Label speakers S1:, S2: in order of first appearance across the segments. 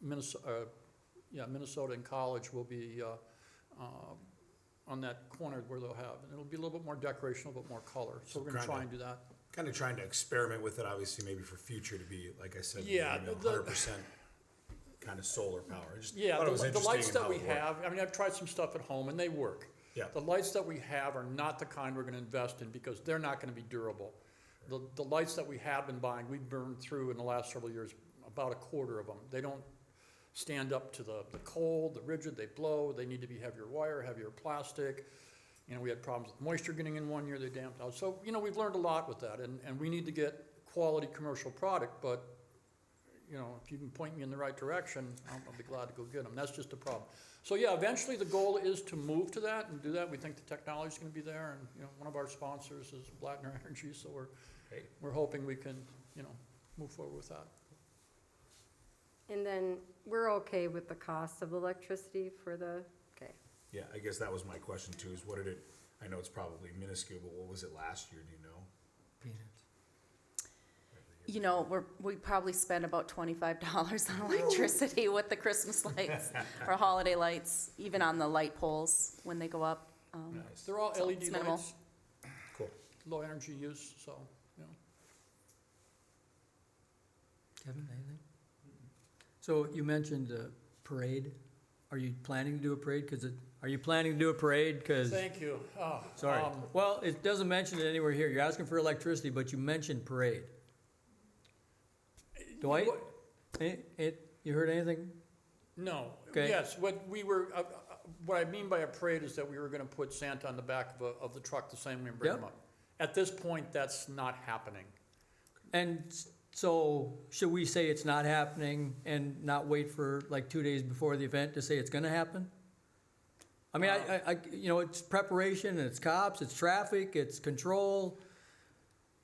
S1: Minnesota, Uh, yeah, Minnesota and College will be uh, uh, on that corner where they'll have, and it'll be a little bit more decoration, a little bit more color, so we're gonna try and do that.
S2: Kind of trying to experiment with it, obviously, maybe for future to be, like I said,
S1: Yeah, the-
S2: hundred percent kind of solar power. I just
S1: Yeah,
S2: thought it
S1: the
S2: was
S1: li- the
S2: interesting
S1: lights that
S2: how
S1: we
S2: it worked.
S1: have, I mean, I've tried some stuff at home and they work.
S2: Yeah.
S1: The lights that we have are not the kind we're gonna invest in because they're not gonna be durable. The, the lights that we have been buying, we've burned through in the last several years about a quarter of them. They don't stand up to the, the cold, the rigid, they blow, they need to be heavier wire, heavier plastic. You know, we had problems with moisture getting in one year, they damped out. So, you know, we've learned a lot with that and, and we need to get quality commercial product, but you know, if you can point me in the right direction, I'll, I'll be glad to go get them. That's just a problem. So yeah, eventually the goal is to move to that and do that. We think the technology's gonna be there and, you know, one of our sponsors is Blattner Energy, so we're,
S2: Great.
S1: we're hoping we can, you know, move forward with that.
S3: And then we're okay with the cost of electricity for the, okay.
S2: Yeah, I guess that was my question too, is what did it, I know it's probably minuscule, but what was it last year, do you know?
S4: You know, we're, we probably spend about twenty-five dollars on electricity with the Christmas lights or holiday lights, even on the light poles when they go up. Um,
S2: Nice,
S1: They're all
S4: So
S1: LED
S4: it's minimal.
S1: lights,
S2: cool.
S1: low energy use, so, you know.
S5: Kevin, anything? So you mentioned a parade. Are you planning to do a parade? Because it, are you planning to do a parade? Because,
S1: Thank you. Oh,
S5: sorry.
S1: um,
S5: Well, it doesn't mention it anywhere here. You're asking for electricity, but you mentioned parade. Dwight?
S1: what-
S5: Any- it- you heard anything?
S1: No,
S5: Okay.
S1: yes, what we were, uh, uh, what I mean by a parade is that we were gonna put Santa on the back of a, of the truck the same way and bring him
S5: Yep.
S1: up. At this point, that's not happening.
S5: And s- so should we say it's not happening and not wait for like two days before the event to say it's gonna happen? I mean, I,
S1: Um.
S5: I, I- you know, it's preparation, it's cops, it's traffic, it's control.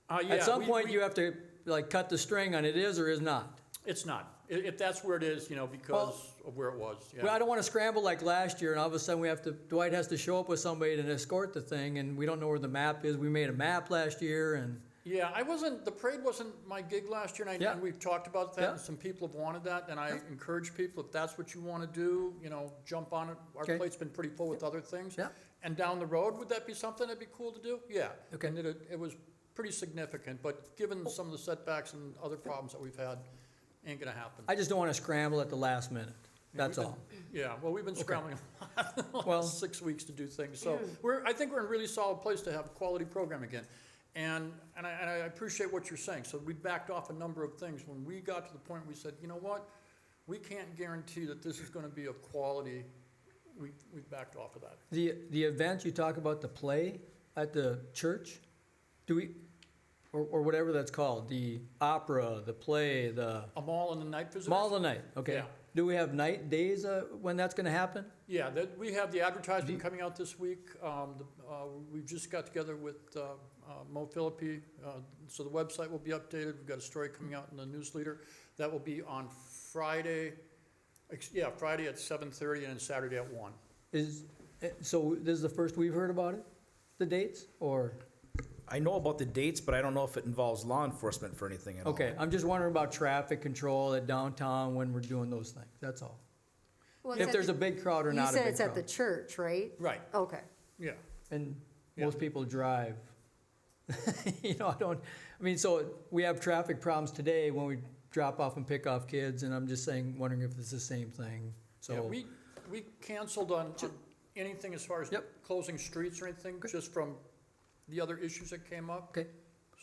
S1: Uh, yeah,
S5: At some
S1: we-
S5: point,
S1: we-
S5: you have to like cut the string on it is or is not.
S1: It's not. I- If that's where it is, you know, because of where it was,
S5: Well, I
S1: yeah.
S5: don't want to scramble like last year, and all of a sudden we have to, Dwight has to show up with somebody to escort the thing, and we don't know where the map is. We made a map last year, and
S1: Yeah, I wasn't, the parade wasn't my gig last year, and I,
S5: Yeah.
S1: and we've talked about that, and
S5: Yeah.
S1: some people have wanted that, and I encourage people, if that's what you wanna do, you know, jump on it. Our
S5: Okay.
S1: plate's been pretty full with other things.
S5: Yeah.
S1: And down the road, would that be something that'd be cool to do? Yeah.
S5: Okay. Oh.
S1: And it, it was pretty significant, but given some of the setbacks and other problems that we've had, ain't gonna happen.
S5: I just don't want to scramble at the last minute. That's all.
S1: Yeah, well, we've been scrambling
S5: Well-
S1: last six weeks to do things, so we're, I think we're in a really solid place to have a quality program again. And, and I, and I appreciate what you're saying, so we backed off a number of things, when we got to the point, we said, you know what? We can't guarantee that this is gonna be of quality, we, we backed off of that.
S5: The, the event you talk about, the play at the church, do we, or, or whatever that's called, the opera, the play, the
S1: A mall and the night visitors?
S5: mall of the night, okay?
S1: Yeah.
S5: Do we have night days, uh, when that's gonna happen?
S1: Yeah, that, we have the advertisement
S5: Mm-hmm.
S1: coming out this week. Um, the, uh, we just got together with, uh, uh, Mo Philippi, uh, so the website will be updated. We've got a story coming out in the newsletter. That will be on Friday, ex- yeah, Friday at seven thirty and then Saturday at one.
S5: Is, eh, so this is the first we've heard about it? The dates, or?
S6: I know about the dates, but I don't know if it involves law enforcement for anything at all.
S5: Okay, I'm just wondering about traffic control at downtown when we're doing those things, that's all.
S3: Well, it's
S5: If
S3: at
S5: there's
S3: the-
S5: a big crowd or
S3: You
S5: not a
S3: said
S5: big
S3: it's at the
S5: crowd.
S3: church, right?
S1: Right,
S3: Okay.
S1: yeah.
S5: And
S1: Yeah.
S5: most people drive. You know, I don't, I mean, so we have traffic problems today when we drop off and pick off kids, and I'm just saying, wondering if it's the same thing,
S1: Yeah,
S5: so.
S1: we, we canceled on, on anything as far as
S5: Yep.
S1: closing streets or anything, just from the other issues that came up,
S5: Okay,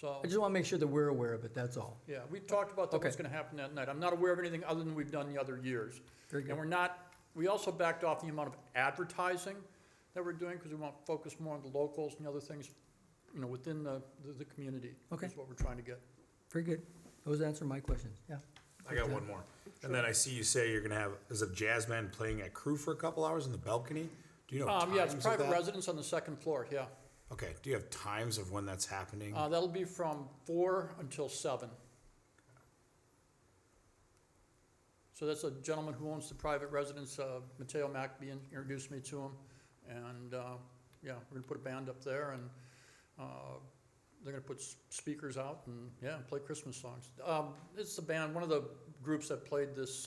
S1: so.
S5: I just wanna make sure that we're aware of it, that's all.
S1: Yeah, we talked about that, what's
S5: Okay.
S1: gonna happen that night. I'm not aware of anything other than we've done the other years.
S5: Very good.
S1: And we're not, we also backed off the amount of advertising that we're doing, because we want to focus more on the locals and the other things, you know, within the, the, the community.
S5: Okay.
S1: Is what we're trying to get.
S5: Very good, those answer my questions, yeah.
S2: I got one more. And then I see you say you're gonna have, there's a jazz band playing at Crew for a couple hours in the balcony? Do you know
S1: Um,
S2: times
S1: yeah, it's
S2: of
S1: private
S2: that?
S1: residence on the second floor, yeah.
S2: Okay, do you have times of when that's happening?
S1: Uh, that'll be from four until seven. So that's a gentleman who owns the private residence, uh, Mateo Macbean introduced me to him. And, uh, yeah, we're gonna put a band up there and, uh, they're gonna put s- speakers out and, yeah, play Christmas songs. Um, it's the band, one of the groups that played this